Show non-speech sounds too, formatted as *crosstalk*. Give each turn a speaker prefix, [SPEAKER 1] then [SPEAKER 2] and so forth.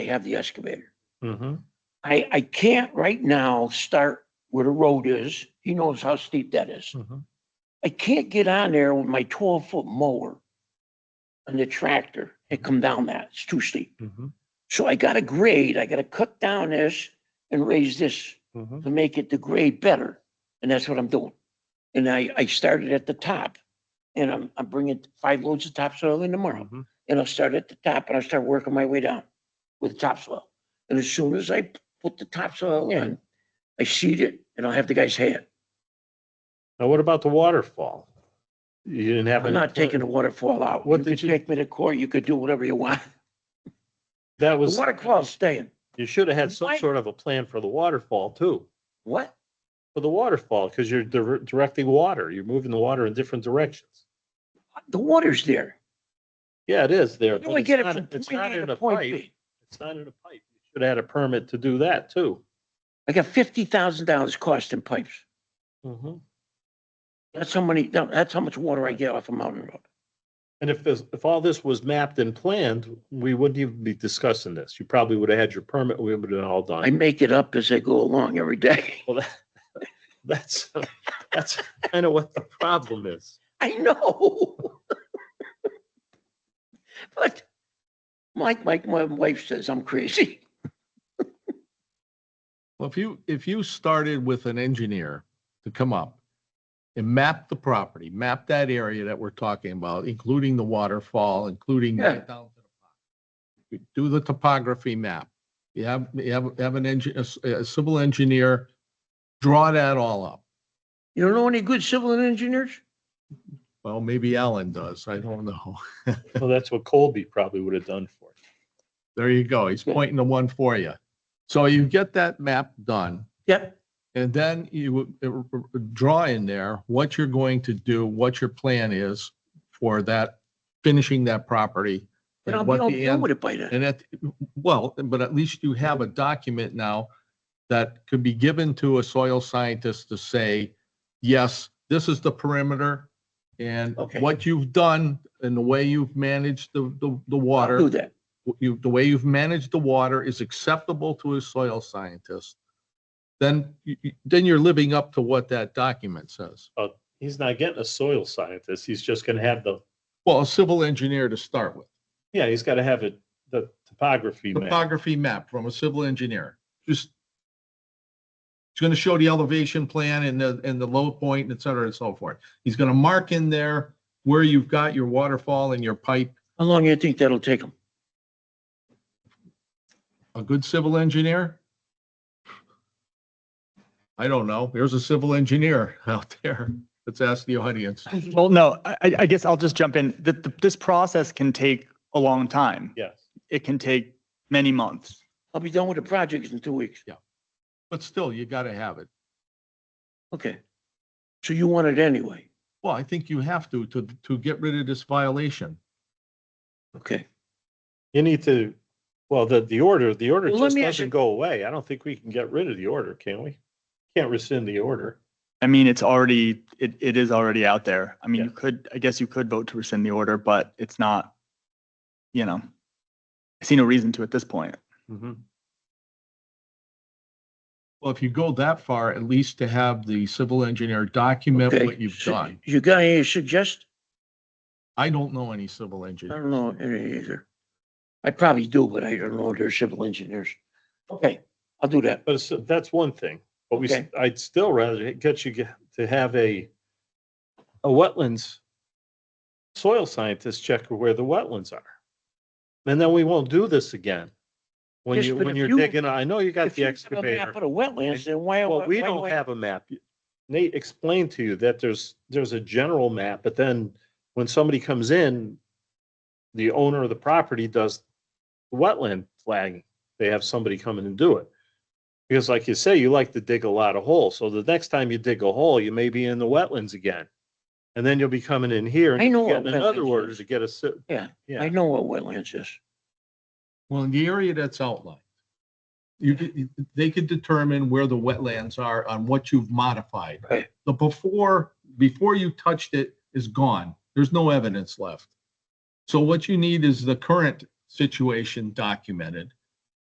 [SPEAKER 1] they have the excavator.
[SPEAKER 2] Mm-hmm.
[SPEAKER 1] I, I can't right now start where the road is. He knows how steep that
[SPEAKER 2] Hmm.
[SPEAKER 1] is.
[SPEAKER 2] mm-hmm,
[SPEAKER 1] I can't get on there with my twelve foot mower and the tractor and come down that. It's too steep.
[SPEAKER 2] mm-hmm,
[SPEAKER 1] So I gotta grade, I gotta cut down this and raise this
[SPEAKER 2] mm-hmm.
[SPEAKER 1] to make it the grade better. And that's what I'm doing. And I, I started at the top and I'm, I'm bringing five loads of topsoil in tomorrow.
[SPEAKER 2] Mm-hmm.
[SPEAKER 1] and I'll start at the top and I'll start working my way down with topsoil. And as soon as I put the topsoil in, I seed it and I'll have the guy's hand.
[SPEAKER 2] Now, what about the waterfall? You didn't have.
[SPEAKER 1] I'm
[SPEAKER 2] any
[SPEAKER 1] not
[SPEAKER 2] plan-
[SPEAKER 1] taking the waterfall out. You
[SPEAKER 2] What
[SPEAKER 1] could
[SPEAKER 2] did you-
[SPEAKER 1] take me to court, you could do whatever you want.
[SPEAKER 2] That
[SPEAKER 1] The
[SPEAKER 2] was,
[SPEAKER 1] waterfall's staying.
[SPEAKER 2] you should have had some
[SPEAKER 1] Why-
[SPEAKER 2] sort of a plan for the waterfall too,
[SPEAKER 1] What?
[SPEAKER 2] for the waterfall, because you're dir- directing water. You're moving the water in different directions.
[SPEAKER 1] The water's there.
[SPEAKER 2] Yeah, it is there.
[SPEAKER 1] Where do
[SPEAKER 2] but
[SPEAKER 1] we
[SPEAKER 2] it's
[SPEAKER 1] get it
[SPEAKER 2] not-
[SPEAKER 1] from
[SPEAKER 2] It's
[SPEAKER 1] point
[SPEAKER 2] not
[SPEAKER 1] A
[SPEAKER 2] in
[SPEAKER 1] to
[SPEAKER 2] a
[SPEAKER 1] point
[SPEAKER 2] pipe.
[SPEAKER 1] B?
[SPEAKER 2] It's not in a pipe. You should have had a permit to do that too.
[SPEAKER 1] I got fifty thousand dollars cost in pipes. Mm-hmm.
[SPEAKER 2] And
[SPEAKER 1] That's how many, that's how much water I get off a mountain road.
[SPEAKER 2] if this, if all this was mapped and planned, we wouldn't even be discussing this. You probably would have had your permit. We would have been all done.
[SPEAKER 1] I make it up as I go along every day. *laughs*
[SPEAKER 2] Well, that- *laughs* that's, that's kind of what the problem is.
[SPEAKER 1] I know. But Mike, Mike, my wife says I'm crazy.
[SPEAKER 3] Well, if you, if you started with an engineer to come up and map the property, map that area that we're talking about, including the waterfall, including
[SPEAKER 1] Yeah.
[SPEAKER 3] down to the pond. do the topography map. You have, you have, have an engine, a civil engineer, draw that all up.
[SPEAKER 1] You don't know any good civil engineers?
[SPEAKER 3] Well, maybe Alan does. I don't know. *laughs*
[SPEAKER 2] Well, that's what Colby probably would have done for you.
[SPEAKER 3] There you go. He's
[SPEAKER 1] Yeah.
[SPEAKER 3] pointing to one for you. So you get that map done.
[SPEAKER 1] Yep.
[SPEAKER 3] And then you uh, uh, draw in there what you're going to do, what your plan is for that, finishing that property.
[SPEAKER 1] And
[SPEAKER 3] and
[SPEAKER 1] I'll be
[SPEAKER 3] what
[SPEAKER 1] all
[SPEAKER 3] the
[SPEAKER 1] done
[SPEAKER 3] end-
[SPEAKER 1] with it by then.
[SPEAKER 3] And at, well, but at least you have a document now that could be given to a soil scientist to say, yes, this is the perimeter and
[SPEAKER 1] Okay.
[SPEAKER 3] what you've done and the way you've managed the, the, the water
[SPEAKER 1] Do that.
[SPEAKER 3] what you, the way you've managed the water is acceptable to a soil scientist, then, you- you- then you're living up to what that document says.
[SPEAKER 2] Uh, He's not getting a soil scientist. He's just gonna have the,
[SPEAKER 3] Well, a civil engineer to start with,
[SPEAKER 2] yeah, he's gotta have it, the topography map.
[SPEAKER 3] topography map from a civil engineer, just it's going to show the elevation plan and the, and the low point, et cetera, and so forth. He's going to mark in there where you've got your waterfall and your pipe.
[SPEAKER 1] How long do you think that'll take them?
[SPEAKER 3] A good civil engineer? I don't know. There's a civil engineer out there. Let's ask the audience.
[SPEAKER 4] Well, no, I, I I guess I'll just jump in. That th- this process can take a long time.
[SPEAKER 2] Yes.
[SPEAKER 4] It can take many months.
[SPEAKER 1] I'll be done with the project in two weeks.
[SPEAKER 3] But still, you gotta have it.
[SPEAKER 1] Okay. So you want it anyway?
[SPEAKER 3] Well, I think you have to, to, to get rid of this violation.
[SPEAKER 1] Okay.
[SPEAKER 2] You need to, well, the, the order, the order
[SPEAKER 1] Well, let
[SPEAKER 2] just
[SPEAKER 1] me ask you-
[SPEAKER 2] doesn't go away. I don't think we can get rid of the order, can we? Can't rescind the order.
[SPEAKER 4] I mean, it's already, it, it is already out there. I mean, you could, I guess you could vote to rescind the order, but it's not, you know, I see no reason to at this point.
[SPEAKER 2] Mm-hmm.
[SPEAKER 3] Well, if you go that far, at least to have the civil engineer document
[SPEAKER 1] Okay.
[SPEAKER 3] what you've
[SPEAKER 1] So
[SPEAKER 3] done.
[SPEAKER 1] You got any suggest?
[SPEAKER 3] I don't know any civil
[SPEAKER 1] I
[SPEAKER 3] engineer.
[SPEAKER 1] don't know any either. I probably do, but I don't know. They're civil engineers. Okay, I'll do that.
[SPEAKER 2] But it's- that's one thing, but we, s-
[SPEAKER 1] Okay.
[SPEAKER 2] I'd still rather get you get- to have a, a wetlands soil scientist check where the wetlands are. And then we won't do this again. When
[SPEAKER 1] Yes,
[SPEAKER 2] you,
[SPEAKER 1] but
[SPEAKER 2] when
[SPEAKER 1] if
[SPEAKER 2] you're
[SPEAKER 1] you-
[SPEAKER 2] digging, I know you got
[SPEAKER 1] If you have
[SPEAKER 2] the
[SPEAKER 1] a
[SPEAKER 2] excavator.
[SPEAKER 1] map of the wetlands, then why?
[SPEAKER 2] Well, we
[SPEAKER 1] why do
[SPEAKER 2] don't
[SPEAKER 1] I-
[SPEAKER 2] have a map. Nate explained to you that there's, there's a general map, but then when somebody comes in, the owner of the property does wetland flagging. They have somebody come in and do it. Because like you say, you like to dig a lot of holes. So the next time you dig a hole, you may be in the wetlands again. And then you'll be coming in here
[SPEAKER 1] I
[SPEAKER 2] and
[SPEAKER 1] know what
[SPEAKER 2] getting another
[SPEAKER 1] wetlands
[SPEAKER 2] order
[SPEAKER 1] is.
[SPEAKER 2] to get a. si-
[SPEAKER 1] Yeah,
[SPEAKER 2] Yeah.
[SPEAKER 1] I know what wetlands is.
[SPEAKER 3] Well, in the area that's outlined, you, could- they could determine where the wetlands are on what you've modified.
[SPEAKER 1] Right.
[SPEAKER 3] The before, before you touched it is gone. There's no evidence left. So what you need is the current situation documented